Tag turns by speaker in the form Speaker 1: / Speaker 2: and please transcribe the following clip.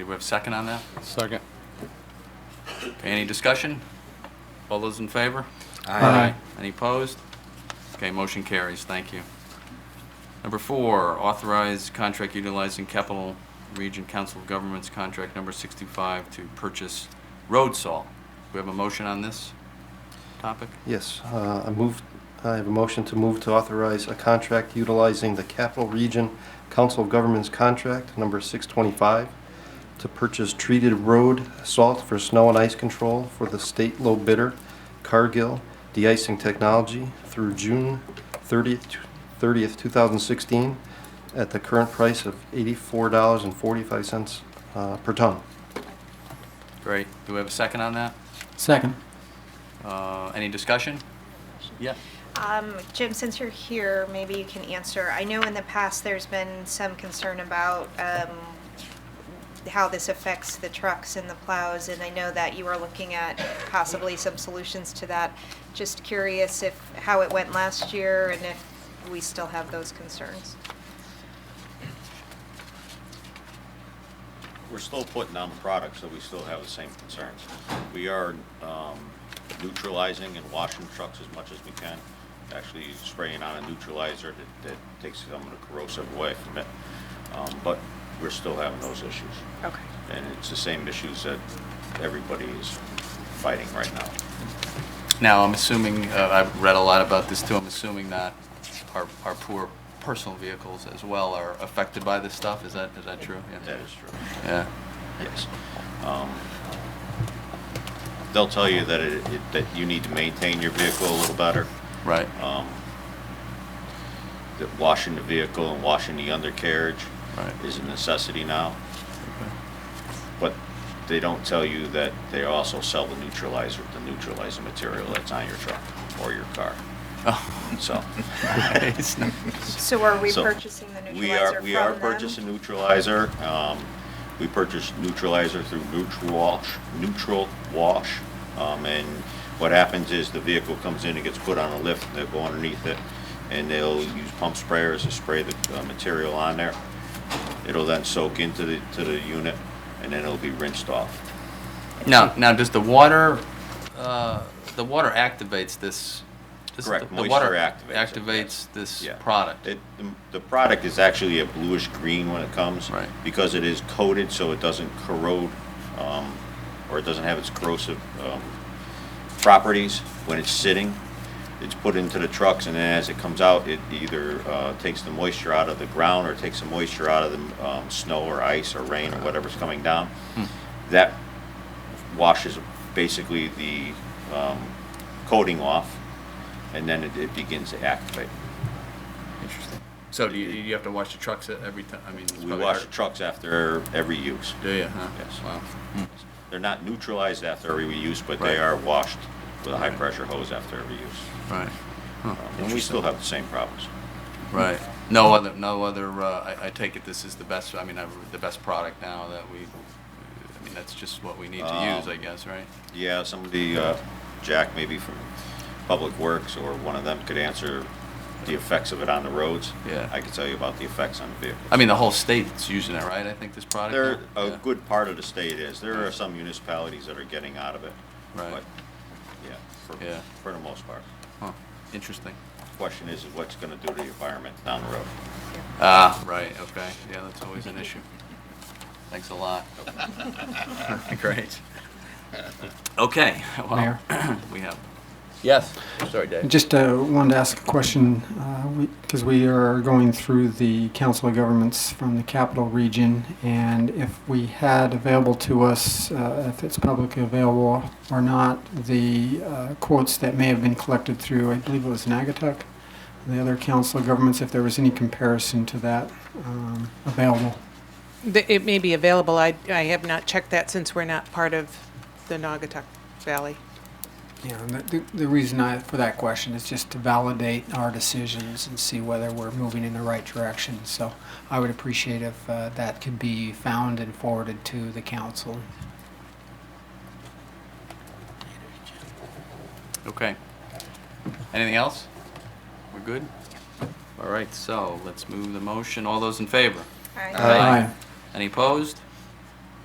Speaker 1: Do we have a second on that?
Speaker 2: Second.
Speaker 1: Okay, Any discussion? All those in favor?
Speaker 2: Aye.
Speaker 1: Any opposed? Okay, motion carries. Thank you. Number four, authorize contract utilizing Capital Region Council of Governments Contract Number 65 to purchase road salt. We have a motion on this topic?
Speaker 3: Yes, uh, I move, I have a motion to move to authorize a contract utilizing the Capital Region Council of Governments Contract Number 625 to purchase treated road salt for snow and ice control for the state low bidder Cargill De-icing Technology through June 30th, 30th, 2016, at the current price of $84.45 uh, per ton.
Speaker 1: Great. Do we have a second on that?
Speaker 2: Second.
Speaker 1: Uh, Any discussion? Yeah.
Speaker 4: Um, Jim, since you're here, maybe you can answer. I know in the past, there's been some concern about um, how this affects the trucks and the plows, and I know that you are looking at possibly some solutions to that. Just curious if, how it went last year and if we still have those concerns.
Speaker 5: We're still putting down the product, so we still have the same concerns. We are um, neutralizing and washing trucks as much as we can, actually spraying on a neutralizer that, that takes some of the corrosive away from it. Um, But we're still having those issues.
Speaker 4: Okay.
Speaker 5: And it's the same issues that everybody is fighting right now.
Speaker 1: Now, I'm assuming, uh, I've read a lot about this too, I'm assuming that our, our poor personal vehicles as well are affected by this stuff, is that, is that true? Yeah.
Speaker 5: That is true.
Speaker 1: Yeah,
Speaker 5: Yes. Um, They'll tell you that it, it- that you need to maintain your vehicle a little better.
Speaker 1: right,
Speaker 5: um, that washing the vehicle and washing the undercarriage
Speaker 1: Right.
Speaker 5: is a necessity now. But they don't tell you that they also sell the neutralizer, the neutralizing material that's on your truck or your car. So.
Speaker 1: It's not-
Speaker 4: So are we
Speaker 5: so
Speaker 4: purchasing the
Speaker 5: we are-
Speaker 4: neutralizer from
Speaker 5: We are
Speaker 4: them?
Speaker 5: purchasing neutralizer. Um, We purchased neutralizer through Neutral Wash, Neutral Wash. Um, And what happens is the vehicle comes in, it gets put on a lift, and they'll go underneath it, and they'll use pump sprayers to spray the uh, material on there. It'll then soak into the, to the unit, and then it'll be rinsed off.
Speaker 1: now, now, does the water, uh, the water activates this? does
Speaker 5: Correct,
Speaker 1: the- the water
Speaker 5: moisture activates it, yes.
Speaker 1: Activates this
Speaker 5: Yeah.
Speaker 1: product?
Speaker 5: It, the- the product is actually a bluish green when it comes.
Speaker 1: Right.
Speaker 5: Because it is coated, so it doesn't corrode, um, or it doesn't have its corrosive, um, properties when it's sitting. It's put into the trucks and then as it comes out, it either, uh, takes the moisture out of the ground or takes the moisture out of the, um, snow or ice or rain or whatever's coming down.
Speaker 1: Hmm.
Speaker 5: That washes basically the, um, coating off and then it, it begins to activate.
Speaker 1: Interesting. So do you, you have to wash the trucks at every time, I mean? it's
Speaker 5: We
Speaker 1: probably
Speaker 5: wash
Speaker 1: hard-
Speaker 5: the trucks after every use.
Speaker 1: Do you, huh?
Speaker 5: Yes.
Speaker 1: Wow.
Speaker 5: They're not neutralized after every use, but they
Speaker 1: Right.
Speaker 5: are washed with a
Speaker 1: Right.
Speaker 5: high-pressure hose after every use.
Speaker 1: Right,
Speaker 5: Um, And we still have the same problems.
Speaker 1: right. No other, no other, uh, I, I take it this is the best, I mean, I- the best product now that we, I mean, that's just what we need to use,
Speaker 5: Um,
Speaker 1: I guess, right?
Speaker 5: Yeah, somebody, uh, Jack maybe from Public Works or one of them could answer the effects of it on the roads.
Speaker 1: Yeah.
Speaker 5: I could tell you about the effects on the vehicle.
Speaker 1: I mean, the whole state's using it, right? I think this product.
Speaker 5: There,
Speaker 1: now?
Speaker 5: a
Speaker 1: Yeah.
Speaker 5: good part of the state is. There are some municipalities that are getting out of it.
Speaker 1: Right.
Speaker 5: but, Yeah, for,
Speaker 1: Yeah.
Speaker 5: for the most part.
Speaker 1: Huh. Interesting.
Speaker 5: Question is, is what's gonna do to the environment down the road?
Speaker 1: Ah, right, okay. Yeah, that's always an issue. Thanks a lot. Great. Okay, well,
Speaker 6: Mayor?
Speaker 1: we have,
Speaker 2: Yes. Sorry, Dave.
Speaker 6: Just uh, wanted to ask a question, because we are going through the Council of Governments from the Capital Region, and if we had available to us, uh, if it's publicly available or not, the uh, quotes that may have been collected through, I believe it was Nagatuck, and the other Council of Governments, if there was any comparison to that um, available.
Speaker 7: Th- It may be available. I, I have not checked that since we're not part of the Naugatuck Valley.
Speaker 6: Yeah, and the- the, the reason I, for that question is just to validate our decisions and see whether we're moving in the right direction. So I would appreciate if uh, that could be found and forwarded to the council.
Speaker 1: okay. Anything else? We're good? All right, so let's move the motion. All those in favor?
Speaker 4: Aye.
Speaker 1: Any opposed?